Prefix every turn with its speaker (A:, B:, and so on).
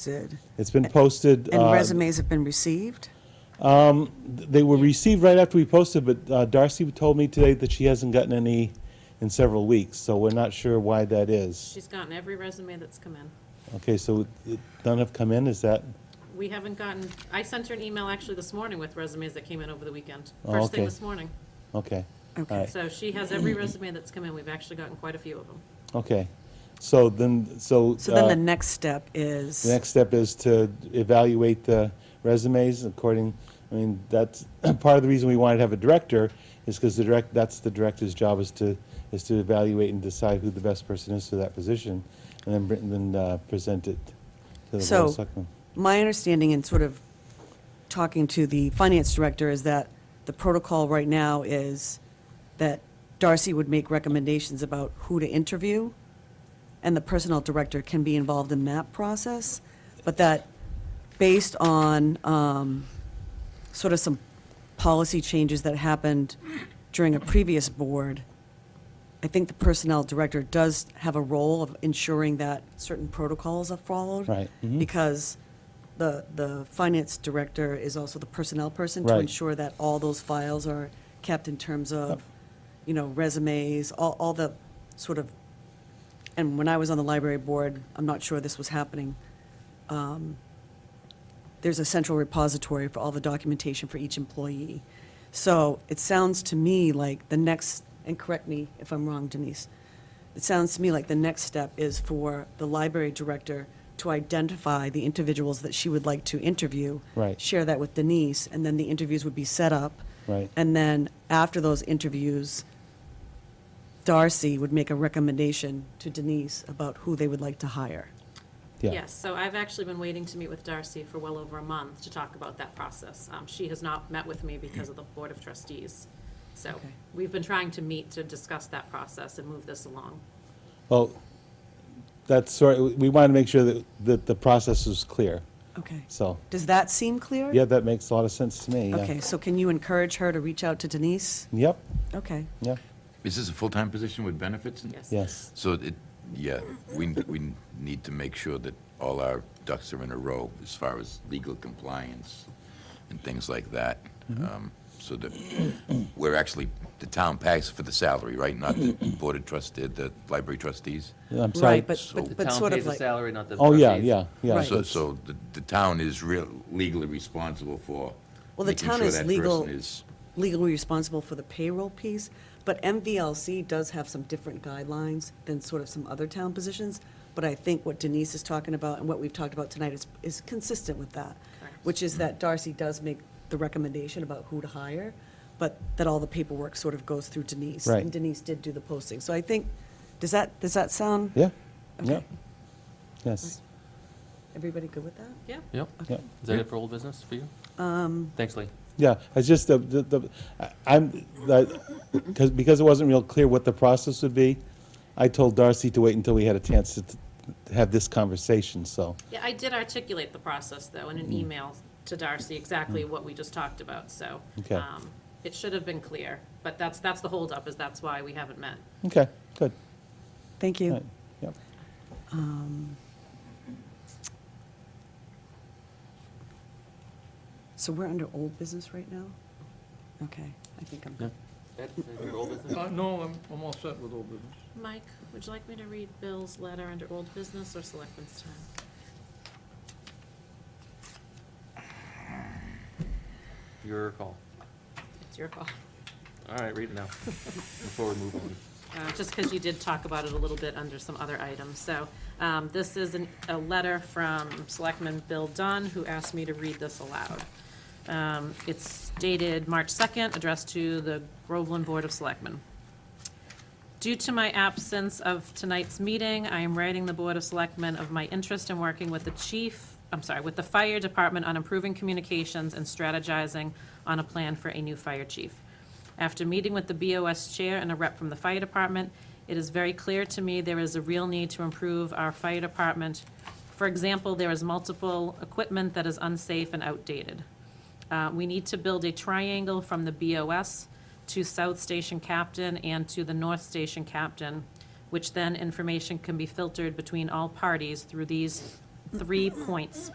A: posted
B: It's been posted.
A: and
B: uh,
A: resumes have been received?
B: They were received right after we posted, but uh, Darcy told me today that she hasn't gotten any in several weeks, so we're not sure why that is.
C: She's gotten every resume that's come in.
B: Okay, so it- none have come in, is that?
C: We haven't gotten, I sent her an email actually this morning with resumes that came in over the weekend.
B: Oh,
C: First thing
B: okay.
C: this morning.
B: Okay.
A: Okay.
B: All right,
C: So she has every resume that's come in. We've actually gotten quite a few of them.
B: Okay. So then, so.
A: So then
B: uh,
A: the next step is,
B: The next step is to evaluate the resumes according, I mean, that's, part of the reason we wanted to have a director is because the direct, that's the director's job is to, is to evaluate and decide who the best person is for that position, and then, br- then uh, present it to the Board of
A: so
B: Selectmen.
A: my understanding in sort of talking to the finance director is that the protocol right now is that Darcy would make recommendations about who to interview, and the personnel director can be involved in that process, but that based on um, sort of some policy changes that happened during a previous board, I think the personnel director does have a role of ensuring that certain protocols are followed.
B: Right, mhm.
A: Because the, the finance director is also the personnel person to
B: Right.
A: ensure that all those files are kept in terms of, you know, resumes, all, all the sort of, and when I was on the library board, I'm not sure this was happening. um, There's a central repository for all the documentation for each employee. So it sounds to me like the next, and correct me if I'm wrong, Denise, it sounds to me like the next step is for the library director to identify the individuals that she would like to interview.
B: Right.
A: Share that with Denise, and then the interviews would be set up.
B: Right.
A: And then after those interviews, Darcy would make a recommendation to Denise about who they would like to hire.
B: Yeah.
C: Yes, so I've actually been waiting to meet with Darcy for well over a month to talk about that process. Um, She has not met with me because of the Board of Trustees. So
A: Okay.
C: we've been trying to meet to discuss that process and move this along.
B: Well, that's sort, we wanted to make sure that, that the process was clear,
A: Okay.
B: so,
A: Does that seem clear?
B: yeah, that makes a lot of sense to me, yeah.
A: Okay, so can you encourage her to reach out to Denise?
B: Yep,
A: Okay.
B: yep,
D: Is this a full-time position with benefits?
C: Yes.
B: yes,
D: So it, yeah, we, we need to make sure that all our ducks are in a row as far as legal compliance and things like that. um, So that we're actually, the town pays for the salary, right? Not the board of trustee, the library trustees?
B: I'm sorry.
A: Right, but,
D: So-
A: but
E: The
A: but
E: town
A: sort
E: pays
A: of
E: the
A: like,
E: salary, not the
B: Oh, yeah,
E: trustees.
B: yeah, yeah.
A: Right.
D: So,
B: that's-
D: so the, the town is real legally responsible for
A: Well, the
D: making
A: town
D: sure
A: is
D: that
A: legal-
D: person is.
A: legally responsible for the payroll piece, but MVLC does have some different guidelines than sort of some other town positions. But I think what Denise is talking about and what we've talked about tonight is, is consistent with that,
C: Correct.
A: which is that Darcy does make the recommendation about who to hire, but that all the paperwork sort of goes through Denise.
B: Right.
A: And Denise did do the posting. So I think, does that, does that sound?
B: Yeah,
A: Okay.
B: yeah, yes,
A: Everybody good with that?
C: Yeah?
E: Yep.
A: Uh,
B: yeah.
E: Is that it for old business for you? Um. Thanks, Lee.
B: Yeah, it's just the, the, the- I- I'm, because, because it wasn't real clear what the process would be, I told Darcy to wait until we had a chance to t- to have this conversation, so,
C: Yeah, I did articulate the process, though, in an email to Darcy, exactly what we just talked about, so.
B: Okay.
C: um, It should have been clear, but that's, that's the holdup, is that's why we haven't met.
B: okay, good.
A: Thank
B: All
A: you.
B: right, Yep.
A: So we're under old business right now? Okay, I think I'm good.
F: Uh, No, I'm, I'm all set with old business.
C: Mike, would you like me to read Bill's letter under old business or selectmen's time?
E: Your call.
C: It's your call.
E: All right, read it now, before we move on.
C: uh, just because you did talk about it a little bit under some other items. So um, this is an- a letter from Selectman Bill Dunn, who asked me to read this aloud. Um, It's dated March 2nd, addressed to the Groveland Board of Selectmen. Due to my absence of tonight's meeting, I am writing the Board of Selectmen of my interest in working with the chief, I'm sorry, with the fire department on improving communications and strategizing on a plan for a new fire chief. After meeting with the BOS chair and a rep from the fire department, it is very clear to me there is a real need to improve our fire department. For example, there is multiple equipment that is unsafe and outdated. Uh, We need to build a triangle from the BOS to South Station Captain and to the North Station Captain, which then information can be filtered between all parties through these three points